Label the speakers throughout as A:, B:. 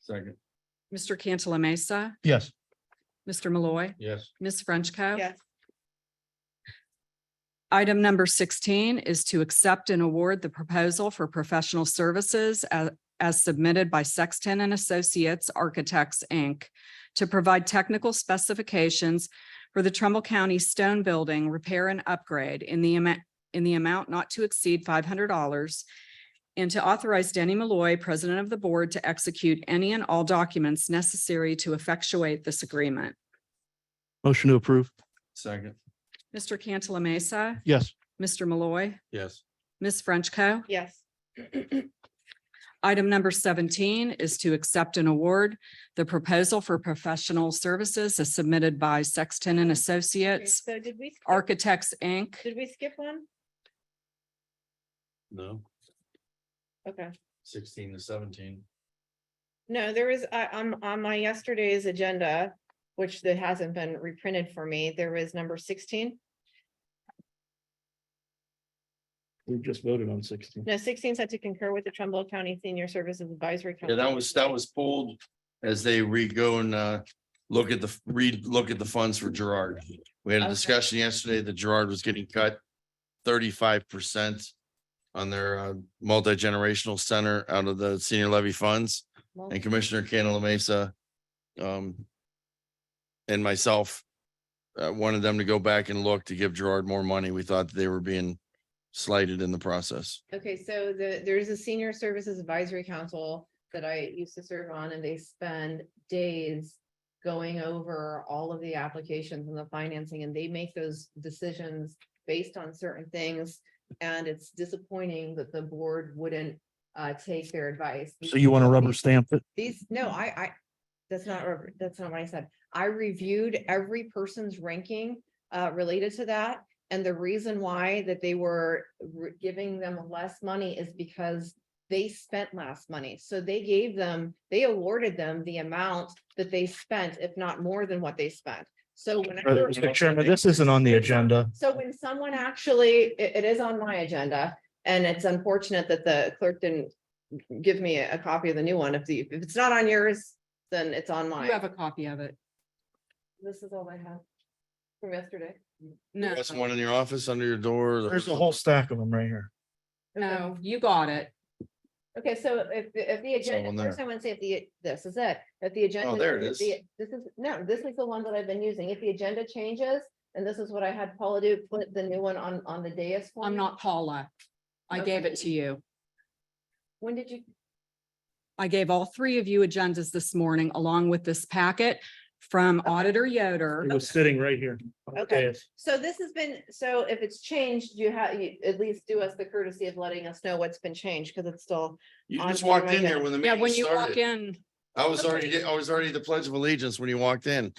A: Second.
B: Mr. Cantala Mesa,
C: Yes.
B: Mr. Malloy,
A: Yes.
B: Ms. Frenchco.
D: yes,
B: Item number sixteen is to accept and award the proposal for professional services a- as submitted by Sexton and Associates Architects, Inc. to provide technical specifications for the Trumbull County Stone Building Repair and Upgrade in the amount, in the amount not to exceed five hundred dollars and to authorize Danny Malloy, President of the Board, to execute any and all documents necessary to effectuate this agreement.
C: Motion to approve.
A: Second.
B: Mr. Cantala Mesa,
C: Yes.
B: Mr. Malloy,
A: Yes.
B: Ms. Frenchco.
D: yes,
B: Item number seventeen is to accept and award the proposal for professional services as submitted by Sexton and
D: Okay,
B: Associates,
D: so did we? skip-
B: Architects, Inc.
D: Did we skip one?
A: No,
D: Okay,
A: sixteen to seventeen.
D: no, there was, I, on, on my yesterday's agenda, which that hasn't been reprinted for me, there was number sixteen.
C: We just voted on sixteen.
D: No, sixteen said to concur with the Trumbull County Senior Services Advisory.
A: Yeah,
D: Council.
A: that was, that was pulled as they re-go and uh, look at the, read, look at the funds for Gerard. We had a
D: Okay.
A: discussion yesterday that Gerard was getting cut thirty-five percent on their uh, multi-generational center out of the senior levy funds.
D: Well,
A: and Commissioner Cantala Mesa. Um. And myself. Uh, wanted them to go back and look to give Gerard more money. We thought they were being slighted in the process.
D: Okay, so the, there's a Senior Services Advisory Council that I used to serve on, and they spend days going over all of the applications and the financing, and they make those decisions based on certain things. And it's disappointing that the board wouldn't uh take their advice.
C: So you want to rubber stamp it?
D: These, no, I, I, that's not, rubber- that's not what I said. I reviewed every person's ranking uh, related to that. And the reason why that they were re- giving them less money is because they spent less money. So they gave them, they awarded them the amount that they spent, if not more than what they spent. So whenever.
C: Mr. Chairman, this isn't on the agenda.
D: So when someone actually, it- it is on my agenda, and it's unfortunate that the clerk didn't give me a copy of the new one. If the, if it's not on yours, then it's on
B: You have
D: mine.
B: a copy of it.
D: This is all I have from yesterday.
B: No,
A: That's one in your office, under your door.
C: There's a whole stack of them right here.
B: no, you got it.
D: Okay, so if, the- if the
A: one
D: agenda,
A: there. Oh,
D: first I want to say if the, this is it, if the agenda.
A: there it
D: if the- This is, no, this is the one that I've been using. If the agenda changes, and this is what I had Paula do, put the new one on, on the dais. for
B: I'm
D: me.
B: not Paula. I gave it to you.
D: When did you,
B: I gave all three of you agendas this morning along with this packet from Auditor Yoder.
C: It was sitting right here.
D: Okay. So this has been, so if it's changed, you have, you at least do us the courtesy of letting us know what's been changed, because it's still,
A: You
D: on
A: just
D: your
A: walked in here
D: agenda.
A: when the
B: Yeah, when
A: meeting
B: you walk
A: started.
B: in,
A: I was already, I was already the pledge of allegiance when you walked in.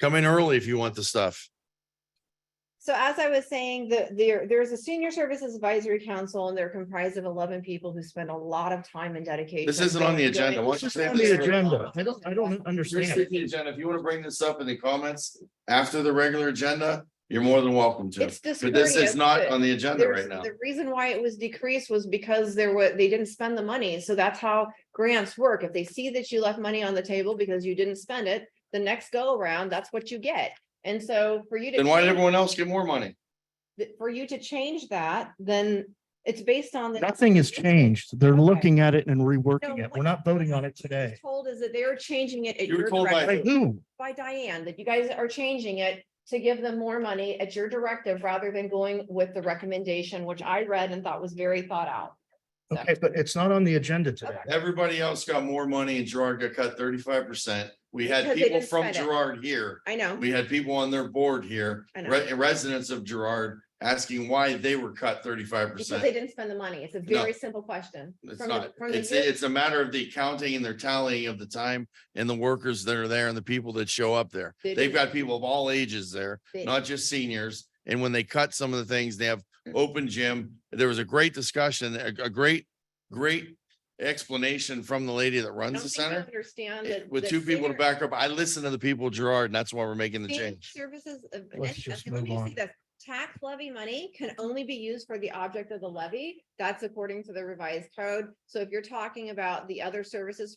A: Come in early if you want the stuff.
D: so as I was saying, the, there, there's a senior services advisory council, and they're comprised of eleven people who spend a lot of time and dedication.
A: This isn't on the
D: going-
A: agenda.
D: going-
A: Why don't you
C: This is
A: say
C: on
A: this
C: the
A: right
C: agenda. I don't, I don't
A: Here's
C: understand.
A: the agenda. If you want to bring this up in the comments after the regular agenda, you're more than welcome to.
D: It's
A: But this
D: discourteous,
A: is not
D: but
A: on the agenda
D: There's-
A: right now.
D: The reason why it was decreased was because there were, they didn't spend the money, so that's how grants work. If they see that you left money on the table because you didn't spend it, the next go around, that's what you get. And so for you to.
A: Then why did
D: change-
A: everyone else get more money?
D: that for you to change that, then it's based on. the-
C: Nothing has changed. They're looking at it and
D: No,
C: reworking it.
D: what-
C: We're not voting on it today.
D: Told is that they're changing it at
A: You were
D: your
A: told by
C: By
D: directive,
C: who?
D: by Diane, that you guys are changing it to give them more money at your directive rather than going with the recommendation, which I read and thought was very thought out.
C: Okay, but it's not on the agenda today.
A: Everybody else got more money and Gerard got cut thirty-five percent. We had
D: Because they
A: people
D: didn't
A: from
D: spend it.
A: Gerard here.
D: I know,
A: We had people on their board here,
D: I know.
A: re- residents of Gerard, asking why they were cut thirty-five
D: because they
A: percent.
D: didn't spend the money. It's a
A: No.
D: very simple question.
A: It's
D: From the-
A: not,
D: from the
A: it's,
D: year-
A: it's a matter of the accounting and their tallying of the time and the workers that are there and the people that show up there.
D: They
A: They've
D: didn't-
A: got people of all ages there.
D: they-
A: not just seniors. And when they cut some of the things, they have
D: Mm.
A: open gym. There was a great discussion, a, a great, great explanation from the lady that
D: I
A: runs
D: don't
A: the
D: think you
A: center.
D: Understand
A: eh,
D: that.
A: With
D: that
A: two people to
D: senior-
A: back up, I listened to the people, Gerard, and that's why we're making the
D: Senior
A: change.
D: Services. of-
C: Let's
D: and-
C: just
D: and let
C: move
D: me see
C: on.
D: this. Tax levy money can only be used for the object of the levy. That's according to the revised code. So if you're talking about the other services